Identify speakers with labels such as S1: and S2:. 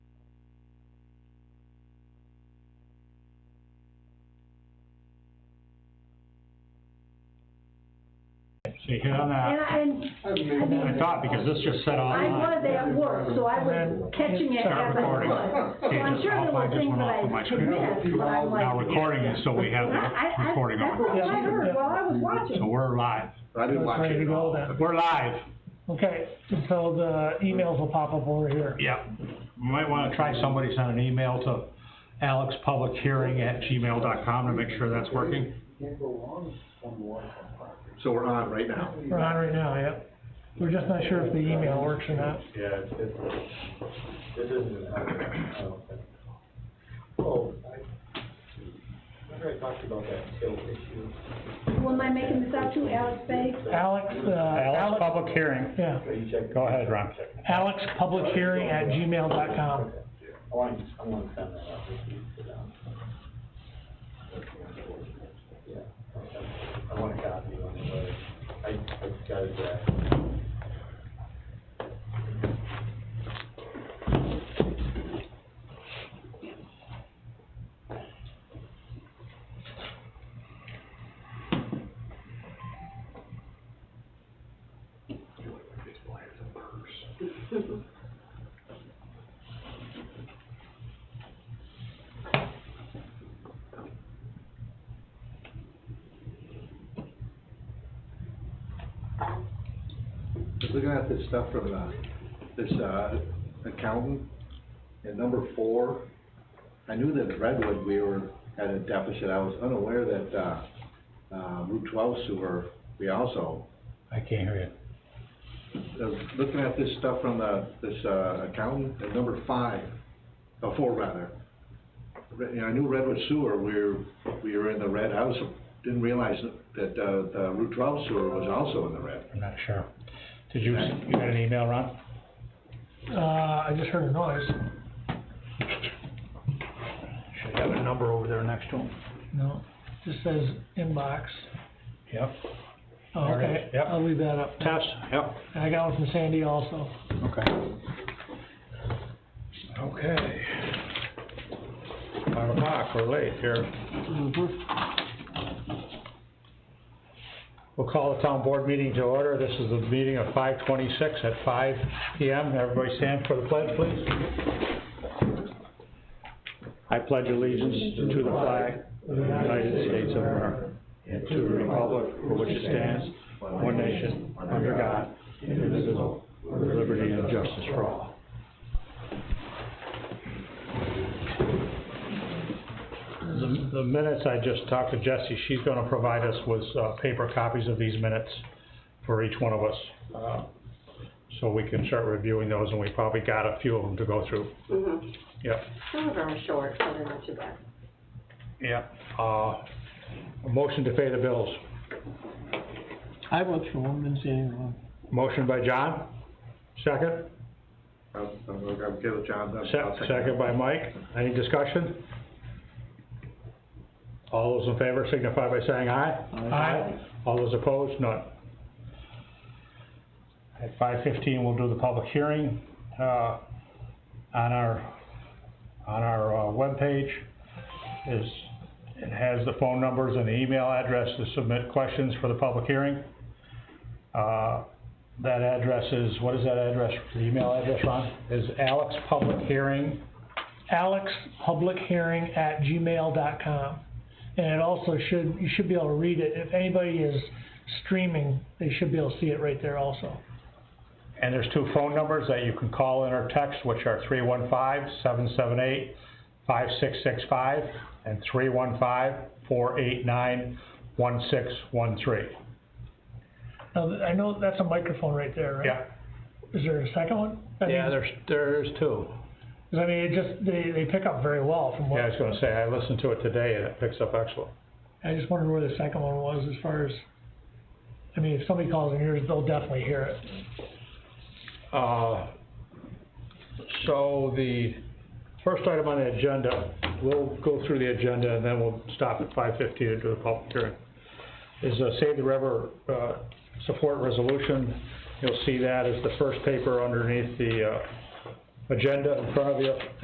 S1: to hit on
S2: And
S1: that.
S2: I, and
S1: I thought, because this just set off.
S2: I was at work, so I was catching it
S1: Start
S2: as I
S1: recording.
S2: could. So
S1: Okay,
S2: I'm
S1: just
S2: sure there
S1: off, I
S2: were
S1: just
S2: things
S1: went off of my
S2: that
S1: screen.
S2: I missed, but I'm like.
S1: Now recording is so we have
S2: I,
S1: the
S2: I,
S1: recording
S2: that's
S1: on.
S2: what I heard while I was watching.
S1: So we're live.
S3: I didn't watch
S4: Ready
S3: it
S4: to
S3: at
S4: go
S3: all.
S4: then.
S1: We're live.
S4: Okay, so the emails will pop up over here.
S1: Yep. You might wanna try somebody, send an email to alexpublichearing@gmail.com to make sure that's working.
S3: So we're on right now.
S4: We're on right now, yep. We're just not sure if the email works or not.
S5: Yeah, it's, it's, this isn't as high, I don't think. Oh, I, remember I talked about that skill issue.
S2: Who am I making this out to, Alex Bay?
S4: Alex, uh,
S6: Alex,
S4: Alex,
S6: public hearing.
S4: yeah,
S5: So you check.
S6: Go ahead, Ron.
S4: alexpublichearing@gmail.com.
S5: I want, to- I want to send that out, just to um, sit down. Yeah, I want to copy one, but I, I got it back.
S3: Looking at this stuff from the, this, uh, accountant, and number four, I knew that Redwood, we were at a deficit, I was unaware that, uh, uh, Route twelve sewer, we also,
S6: I can't hear you.
S3: uh, looking at this stuff from the, this, uh, accountant, and number five, uh, four rather. Re- You know, I knew Redwood sewer, we were, we were in the red, I was, didn't realize that, uh, the Route twelve sewer was also in the red.
S6: I'm not sure. Did you, you got an email, Ron?
S4: Uh, I just heard a noise.
S6: Should have a number over there next to him.
S4: No, just says inbox.
S6: Yep.
S4: Oh,
S6: There it is,
S4: Okay,
S6: yep.
S4: I'll leave that up.
S6: Test, yep.
S4: And I got one from Sandy also.
S6: Okay. Okay. Five o'clock, we're late here. We'll call the town board meeting to order. This is the meeting of five twenty-six at five P M. Everybody stand for the pledge, please. I pledge allegiance to the flag of the United States of America and to the republic for which it stands, one nation, under God, indivisible, with liberty and justice for all. The the minutes, I just talked to Jessie, she's gonna provide us with, uh, paper copies of these minutes for each one of us. uh, So we can start reviewing those, and we probably got a few of them to go through.
S7: Mm-hmm.
S6: Yep.
S7: Some of them are short, so they're not too bad.
S6: Yeah, uh, a motion to pay the bills.
S4: I looked for one, didn't see anything wrong.
S6: Motion by John, second,
S3: I'm, I'm, I'm okay with John. I'll- I'll
S6: se- second by Mike. Any discussion? All those in favor signify by saying aye.
S4: Aye.
S6: All those opposed, none. At five fifteen, we'll do the public hearing, uh, on our, on our, uh, webpage. Is, it has the phone numbers and the email address to submit questions for the public hearing. Uh, that address is, what is that address, the email address, Ron? Is alexpublichearing
S4: alexpublichearing@gmail.com. And it also should, you should be able to read it. If anybody is streaming, they should be able to see it right there also.
S6: And there's two phone numbers that you can call in or text, which are 315-778-5665 and 315-489-1613.
S4: Now, th- I know that's a microphone right there, right?
S6: Yeah,
S4: Is there a second one? I mean,
S6: yeah, there's, there's two.
S4: 'cause I mean, it just, they, they pick up very well from
S6: Yeah, I was
S4: what,
S6: gonna say, I listened to it today and it picks up excellent.
S4: I just wondered where the second one was as far as, I mean, if somebody calls in here, they'll definitely hear it.
S6: Uh, so the first item on the agenda, we'll go through the agenda and then we'll stop at five fifteen and do the public hearing, is a Save the River, uh, support resolution. You'll see that as the first paper underneath the, uh, agenda in front of you.